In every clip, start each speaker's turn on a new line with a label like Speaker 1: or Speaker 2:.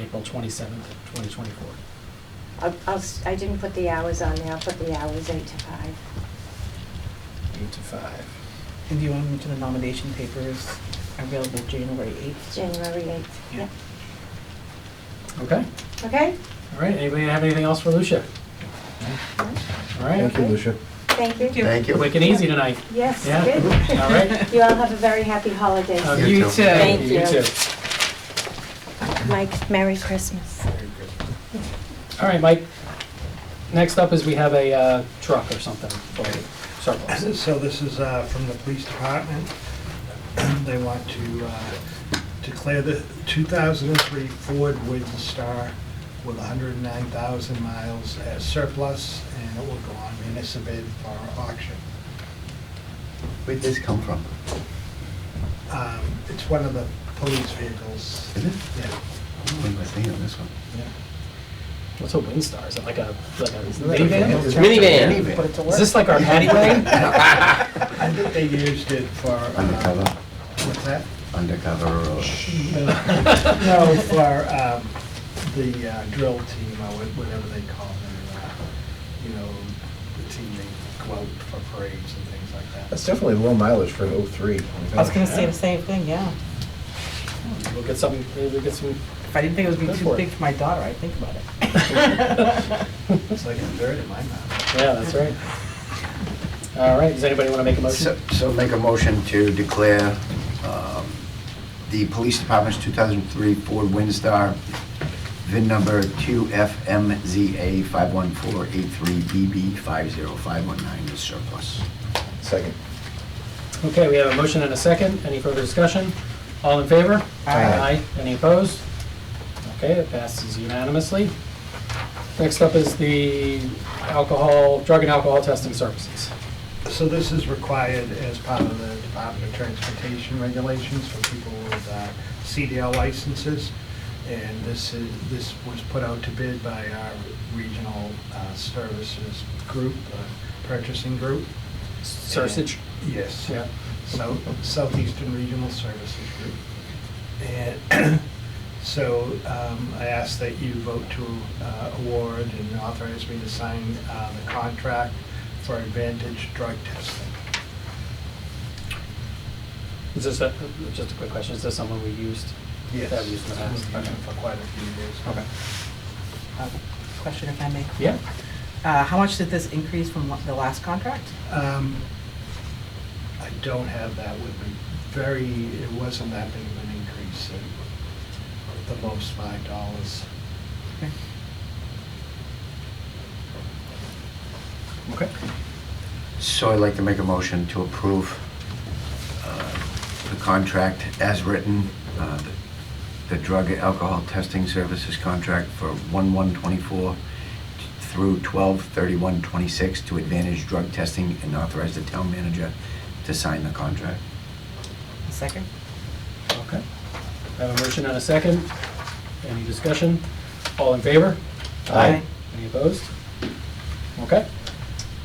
Speaker 1: April twenty-seventh, twenty twenty-four.
Speaker 2: I'll, I'll, s- I didn't put the hours on there, I'll put the hours eight to five.
Speaker 3: Eight to five.
Speaker 4: And do you want to mention the nomination papers available January 8th?
Speaker 2: January 8th.
Speaker 1: Yeah.
Speaker 2: Yep.
Speaker 1: Okay,
Speaker 2: Okay?
Speaker 1: all right, anybody have anything else for Lucia? All right,
Speaker 5: Thank you, Lucia.
Speaker 2: Thank you.
Speaker 3: Thank you.
Speaker 1: quick and easy tonight,
Speaker 2: Yes,
Speaker 1: Yeah.
Speaker 2: good.
Speaker 1: all right?
Speaker 2: You all have a very happy holiday.
Speaker 1: Uh,
Speaker 3: You too.
Speaker 2: Thank
Speaker 1: You
Speaker 2: you.
Speaker 1: too.
Speaker 2: Mike, Merry Christmas.
Speaker 1: All right, Mike, next up is we have a uh, truck or something for surplus.
Speaker 6: So this is uh, from the police department. They want to uh, declare the 2003 Ford Windstar with 109,000 miles as surplus, and it will go on municipal bid for auction.
Speaker 3: Where'd this come from?
Speaker 6: Um, It's one of the police vehicles.
Speaker 3: Is it?
Speaker 6: Yeah,
Speaker 3: What am I thinking of this one?
Speaker 1: What's a Windstar? Is it like a, like a
Speaker 6: like a
Speaker 1: minivan?
Speaker 6: van?
Speaker 7: Minivan.
Speaker 4: Put it to work.
Speaker 1: Is this like our padway?
Speaker 6: I think they used it for, uh,
Speaker 5: Undercover,
Speaker 6: what's that?
Speaker 5: undercover, uh,
Speaker 6: No, for um, the uh, drill team, or wha- whatever they call them, uh, you know, the team they go out for parades and things like that.
Speaker 5: that's definitely low mileage for an 03.
Speaker 4: I was going to say the same thing, yeah.
Speaker 1: We'll get some, we'll get some,
Speaker 4: If I didn't think it would
Speaker 1: Go
Speaker 4: be
Speaker 1: for
Speaker 4: too
Speaker 1: it.
Speaker 4: big for my daughter, I'd think about it.
Speaker 6: It's like a third in my mouth.
Speaker 1: yeah, that's right. All right, does anybody want to make a
Speaker 3: So,
Speaker 1: motion?
Speaker 3: so make a motion to declare um, the police department's 2003 Ford Windstar, VIN number 2FMZA51483BB50519 is surplus.
Speaker 5: Second.
Speaker 1: Okay, we have a motion and a second. Any further discussion? All in favor?
Speaker 5: Aye.
Speaker 1: Any opposed? Okay, it passes unanimously. Next up is the alcohol, drug and alcohol testing services.
Speaker 6: So this is required as part of the Department of Transportation regulations for people with uh, CDL licenses. And this is, this was put out to bid by our regional uh, services group, uh, purchasing group.
Speaker 1: Sursage?
Speaker 6: Yes.
Speaker 1: Yeah.
Speaker 6: South Southeastern Regional Services Group. And so um, I ask that you vote to uh, award and authorize me to sign uh, the contract for Advantage Drug Testing.
Speaker 1: Is this, a- just a quick question, is this someone we used?
Speaker 6: Yes.
Speaker 1: That we used in the past?
Speaker 6: We've used it For quite a few years.
Speaker 1: Okay.
Speaker 4: Uh, Question if I may.
Speaker 1: Yeah,
Speaker 4: Uh, How much did this increase from la- the last contract?
Speaker 6: Um, I don't have that with me. Very, it wasn't that big of an increase, It- the most five dollars.
Speaker 1: okay.
Speaker 3: So I'd like to make a motion to approve uh, the contract as written, uh, the- the drug and alcohol testing services contract for 1/1/24 through 12/31/26 to Advantage Drug Testing and authorize the town manager to sign the contract.
Speaker 4: Second?
Speaker 1: Okay. I have a motion and a second. Any discussion? All in favor?
Speaker 5: Aye.
Speaker 1: Any opposed? Okay.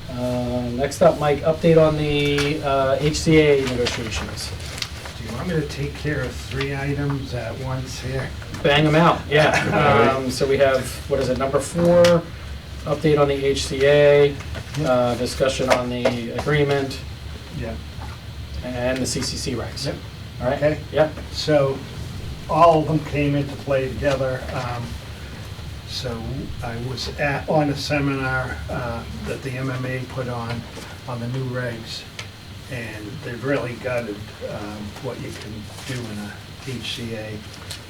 Speaker 1: Uh, Next up, Mike, update on the uh, HCA negotiations.
Speaker 6: Do you want me to take care of three items at once here?
Speaker 1: Bang them out, yeah. Um, So we have, what is it, number four, update on the HCA, uh, discussion on the agreement,
Speaker 6: Yeah.
Speaker 1: and the CCC regs.
Speaker 6: Yep.
Speaker 1: All right?
Speaker 6: Okay.
Speaker 1: Yep.
Speaker 6: So all of them came into play together. Um, So I was at, on a seminar uh, that the MMA put on, on the new regs, and they've really gutted um, what you can do in a HCA.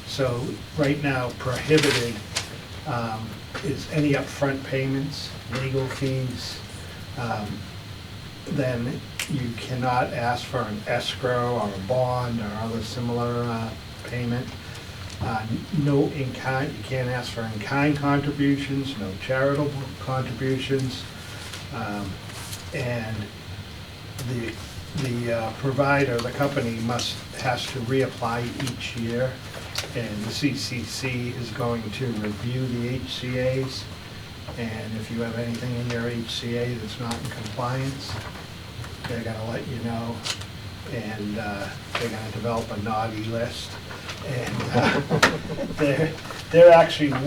Speaker 6: So right now prohibited um, is any upfront payments, legal fees, um, then you cannot ask for an escrow or a bond or other similar uh, payment. Uh, No in-kind, you can't ask for in-kind contributions, no charitable contributions. Um, And the, the uh, provider, the company must, has to reapply each year. And the CCC is going to review the HCA's. And if you have anything in your HCA that's not in compliance, they're gonna let you know. and uh, they're gonna develop a naughty list. And uh, they're, they're actually